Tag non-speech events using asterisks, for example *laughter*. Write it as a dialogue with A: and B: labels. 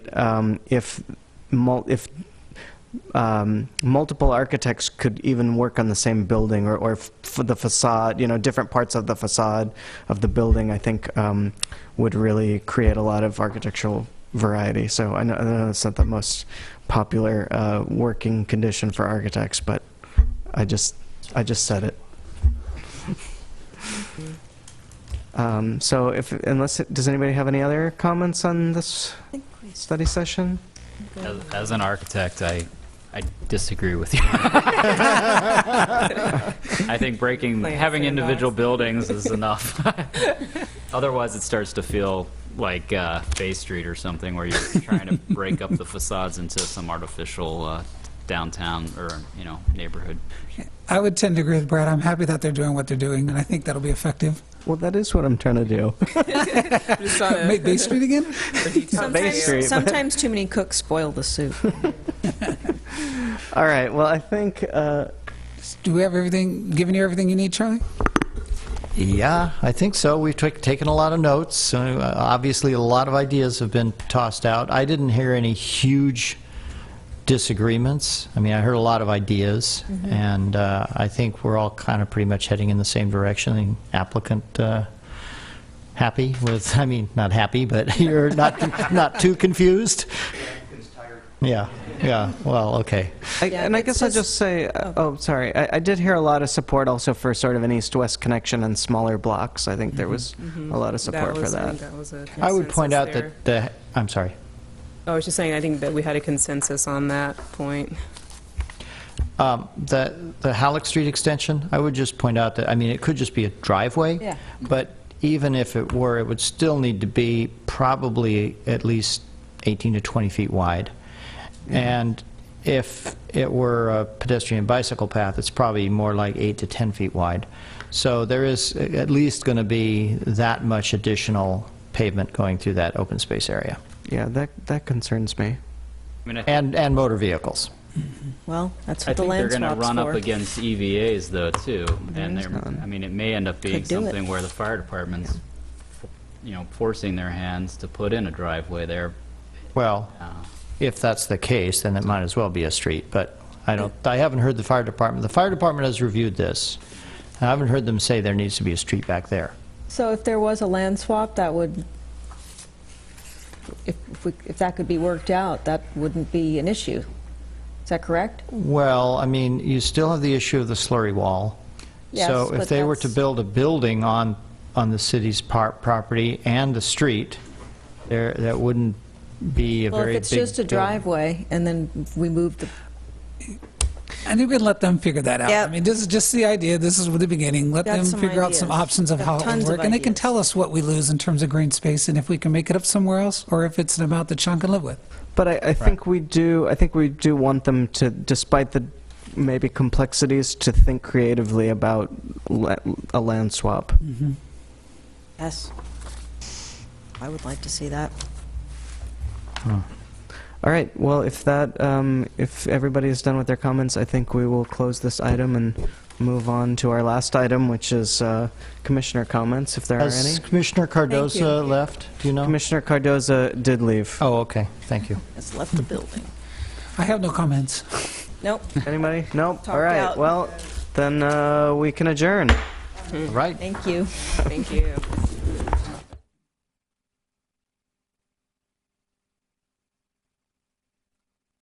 A: um, if mul- if um, multiple architects could even work on the same building, or, or f- for the facade, you know, different parts of the facade of the building, I think um, would really create a lot of architectural variety. So I know, I know it's not the most popular uh, working condition for architects, but I just I just said it. Um, so if unless does anybody have any other comments on this
B: I think we
A: study session?
B: go.
C: As, as an architect, I, I disagree with you. *laughs* I think breaking,
B: Plants
C: having
B: and
C: individual buildings is enough. *laughs* Otherwise, it starts to feel like uh, Bay Street or something, where you're trying to break up the facades into some artificial uh, downtown or, you know, neighborhood.
D: I would tend to agree with Brad. I'm happy that they're doing what they're doing, and I think that'll be effective.
A: Well, that is what I'm trying to do.
D: Make
B: *laughs*
D: Bay Street again?
A: Bay Street, but-
B: Sometimes, sometimes too many cooks spoil
A: *laughs*
B: the soup.
A: *laughs* All right. Well, I think uh,
D: Do we have everything, given you everything you need, Charlie?
E: Yeah, I think so. We've took- taken a lot of notes. So, uh, Obviously, a lot of ideas have been tossed out. I didn't hear any huge disagreements. I mean, I heard a lot of ideas, and uh, I think we're all kind of pretty much heading in the same direction. The Applicant uh, happy with, *laughs* I mean, not happy, but *laughs* you're not, not too confused? Yeah, yeah, well, okay.
A: I,
B: Yeah,
A: and I
B: it's
A: guess I'll
B: just-
A: just say, uh, oh, sorry, I, I did hear a lot of support also for sort of an east-west connection and smaller blocks. I think there was a lot of support for
F: was- I think
A: that.
F: that was a
E: I would point
F: consensus
E: out
F: there.
E: that the, I'm sorry.
F: I was just saying, I think that we had a consensus on that point.
E: Um, The the Halleck Street extension, I would just point out that, I mean, it could just be a driveway.
B: Yeah.
E: But even if it were, it would still need to be probably at least 18 to 20 feet wide. And if it were a pedestrian bicycle path, it's probably more like eight to 10 feet wide. So there is a- at least going to be that much additional pavement going through that open space area.
A: Yeah, that that concerns me.
C: I mean, I think-
E: And, and motor vehicles.
B: Well, that's
C: I
B: what the
C: think they're
B: land
C: going to
B: swap's
C: run up
B: for.
C: against EVAs, though, too. And they're, I mean, it may end up being
B: Could do it.
C: something where the fire department's, you know, forcing their hands to put in a driveway there.
E: Well,
C: Uh,
E: If that's the case, then it might as well be a street, but I don't, I haven't heard the fire department, the fire department has reviewed this. I haven't heard them say there needs to be a street back there.
B: So if there was a land swap, that would, if, if we- if that could be worked out, that wouldn't be an issue. Is that correct?
E: Well, I mean, you still have the issue of the slurry wall.
B: Yes,
E: So
B: but
E: if they were to
B: that's-
E: build a building on, on the city's par property and the street, there, that wouldn't be a
B: Well,
E: very big.
B: if it's just a
E: building.
B: driveway and then we move the,
D: I think we'd let them figure that out.
B: Yep.
D: I mean, this is just the idea. This is the beginning. Let
B: Got
D: them
B: some
D: figure out some
B: ideas.
D: options of
B: Got
D: how it
B: tons
D: would
B: of
D: work. And they can
B: ideas.
D: tell us what we lose in terms of green space and if we can make it up somewhere else or if it's an amount that Sean can live with.
A: But I, I think we do. I think we do want them to, despite the maybe complexities, to think creatively about la- a land swap.
B: Mm-hmm. yes. I would like to see that.
A: All right. Well, if that, um, if everybody is done with their comments, I think we will close this item and move on to our last item, which is uh, commissioner comments, if there are any.
E: Has Commissioner Cardoza left? Do you know?
A: Commissioner Cardoza did leave.
E: Oh, okay, thank you.
B: It's left the building.
D: I have no comments.
B: Nope.
A: Anybody? Nope. All
B: Talked
A: right.
B: out.
A: Well, then uh, we can adjourn.
E: Right.
B: Thank you.
F: Thank you.